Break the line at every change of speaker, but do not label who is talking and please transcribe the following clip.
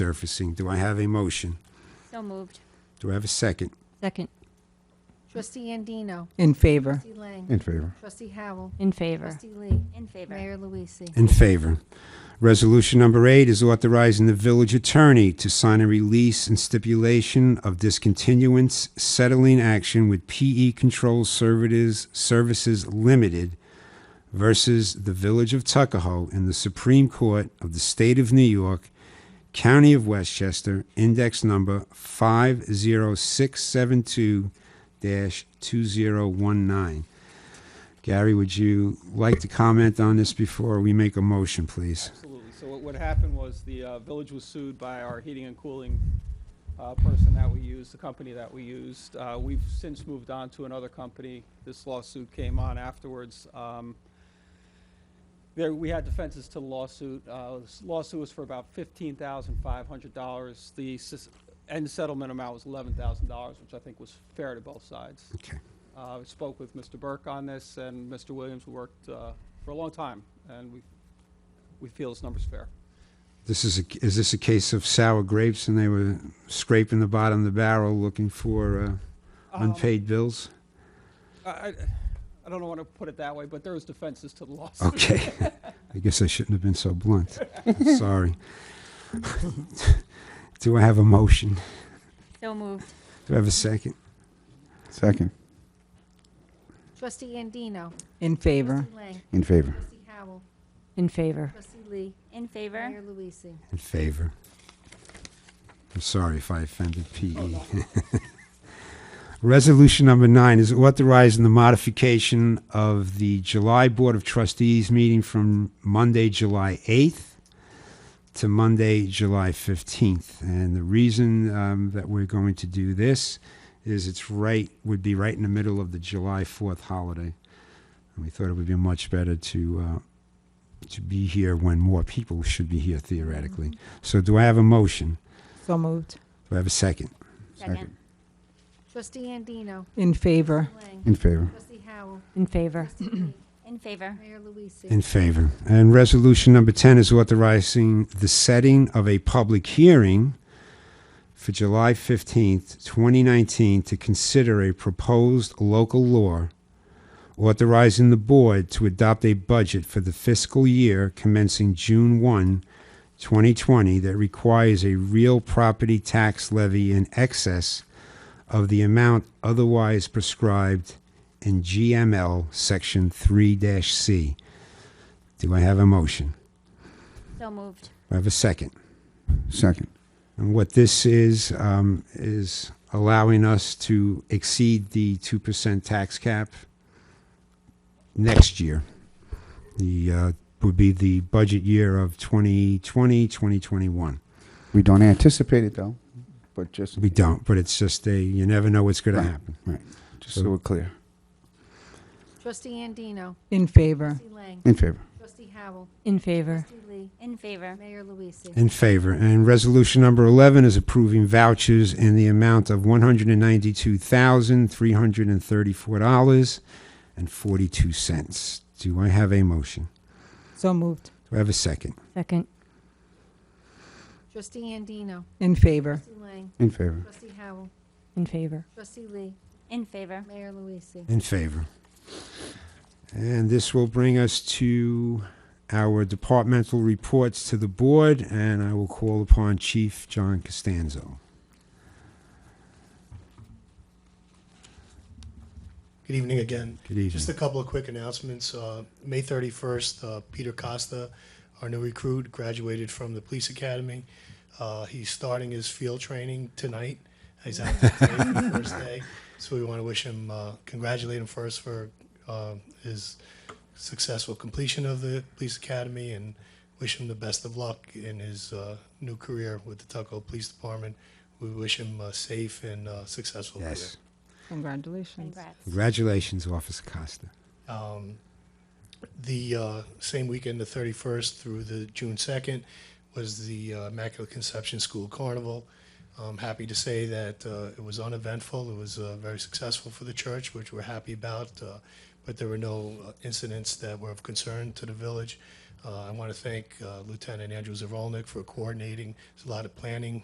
surfacing. Do I have a motion?
So moved.
Do I have a second?
Second.
Trustee Andino.
In favor.
Trustee Lang.
In favor.
Trustee Howell.
In favor.
Trustee Lee.
In favor.
Mayor Luise.
In favor. Resolution number eight is authorizing the village attorney to sign a release and stipulation of discontinuance settling action with PE Control Services, Services Limited versus the Village of Tuckahoe in the Supreme Court of the State of New York, County of Westchester, index number 50672-2019. Gary, would you like to comment on this before we make a motion, please?
Absolutely. So what, what happened was the uh, village was sued by our heating and cooling uh, person that we used, the company that we used. Uh, We've since moved on to another company. This lawsuit came on afterwards. Um, There, we had defenses to the lawsuit. Uh, this Lawsuit was for about fifteen thousand five hundred dollars. The sis- end settlement amount was eleven thousand dollars, which I think was fair to both sides.
Okay.
Uh, I spoke with Mr. Burke on this, and Mr. Williams worked uh, for a long time, and we, we feel this number's fair.
This is, a, is this a case of sour grapes and they were scraping the bottom of the barrel looking for uh,
Um,
unpaid bills?
I, I- I don't want to put it that way, but there was defenses to the lawsuit.
Okay. I guess I shouldn't have been so blunt. I'm Sorry. Do I have a motion?
So moved.
Do I have a second?
Second.
Trustee Andino.
In favor.
Trustee Lang.
In favor.
Trustee Howell.
In favor.
Trustee Lee.
In favor.
Mayor Luise.
In favor. I'm sorry if I offended PE. Resolution number nine is authorizing the modification of the July Board of Trustees meeting from Monday, July 8th to Monday, July 15th. And the reason um, that we're going to do this is it's right, would be right in the middle of the July 4th holiday. And we thought it would be much better to uh, to be here when more people should be here theoretically. So do I have a motion?
So moved.
Do I have a second?
Second.
Trustee Andino.
In favor.
Lang.
In favor.
Trustee Howell.
In favor.
Trustee Lee.
In favor.
Mayor Luise.
In favor. And resolution number 10 is authorizing the setting of a public hearing for July 15th, 2019, to consider a proposed local law authorizing the board to adopt a budget for the fiscal year commencing June 1, 2020, that requires a real property tax levy in excess of the amount otherwise prescribed in GML Section 3-C. Do I have a motion?
So moved.
Do I have a second?
Second.
And what this is, um, is allowing us to exceed the 2% tax cap next year. The, uh, would be the budget year of 2020, 2021.
We don't anticipate it though, but just.
We don't, but it's just a, you never know what's going to happen.
Right. Just so we're clear.
Trustee Andino.
In favor.
Trustee Lang.
In favor.
Trustee Howell.
In favor.
Trustee Lee.
In favor.
Mayor Luise.
In favor. And resolution number 11 is approving vouchers in the amount of $192,334.42. Do I have a motion?
So moved.
Do I have a second?
Second.
Trustee Andino.
In favor.
Trustee Lang.
In favor.
Trustee Howell.
In favor.
Trustee Lee.
In favor.
Mayor Luise.
In favor. And this will bring us to our departmental reports to the board, and I will call upon Chief John Costanzo.
Good evening again.
Good evening.
Just a couple of quick announcements. Uh, May 31st, uh, Peter Costa, our new recruit, graduated from the police academy. Uh, He's starting his field training tonight. He's out there today for the first day. So we want to wish him, uh, congratulate him first for uh, his successful completion of the police academy and wish him the best of luck in his uh, new career with the Tuckahoe Police Department. We wish him a safe and uh, successful career.
Yes.
Congratulations.
Congrats.
Congratulations, Officer Costa.
Um, The uh, same weekend, the 31st through the June 2nd, was the uh, Immaculate Conception School Carnival. I'm happy to say that uh, it was uneventful. It was uh, very successful for the church, which we're happy about, uh, but there were no uh, incidents that were of concern to the village. Uh, I want to thank uh, Lieutenant Andrew Zerolnik for coordinating. There's a lot of planning